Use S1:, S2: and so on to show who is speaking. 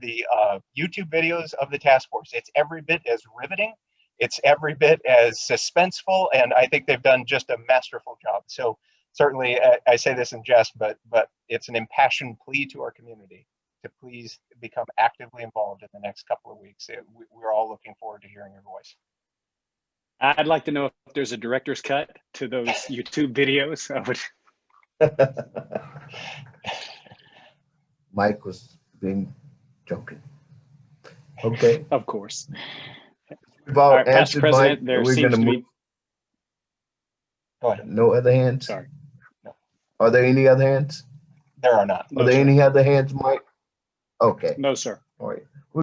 S1: the uh, YouTube videos of the task force. It's every bit as riveting. It's every bit as suspenseful, and I think they've done just a masterful job. So certainly, I, I say this in jest, but but it's an impassioned plea to our community to please become actively involved in the next couple of weeks. It, we, we're all looking forward to hearing your voice.
S2: I'd like to know if there's a director's cut to those YouTube videos. I would,
S3: Mike was being joking. Okay,
S2: of course.
S3: we've
S2: All
S3: all
S2: right, Past
S3: answered Oh, Mike.
S2: President, there
S3: We're
S2: seems
S3: gonna
S2: to
S3: move,
S2: be,
S1: Go ahead.
S3: no other hands?
S2: sorry.
S3: Are there any other hands?
S1: There are not.
S3: Are
S2: No,
S3: there
S2: sir.
S3: any other hands, Mike? Okay,
S2: No, sir.
S3: all right.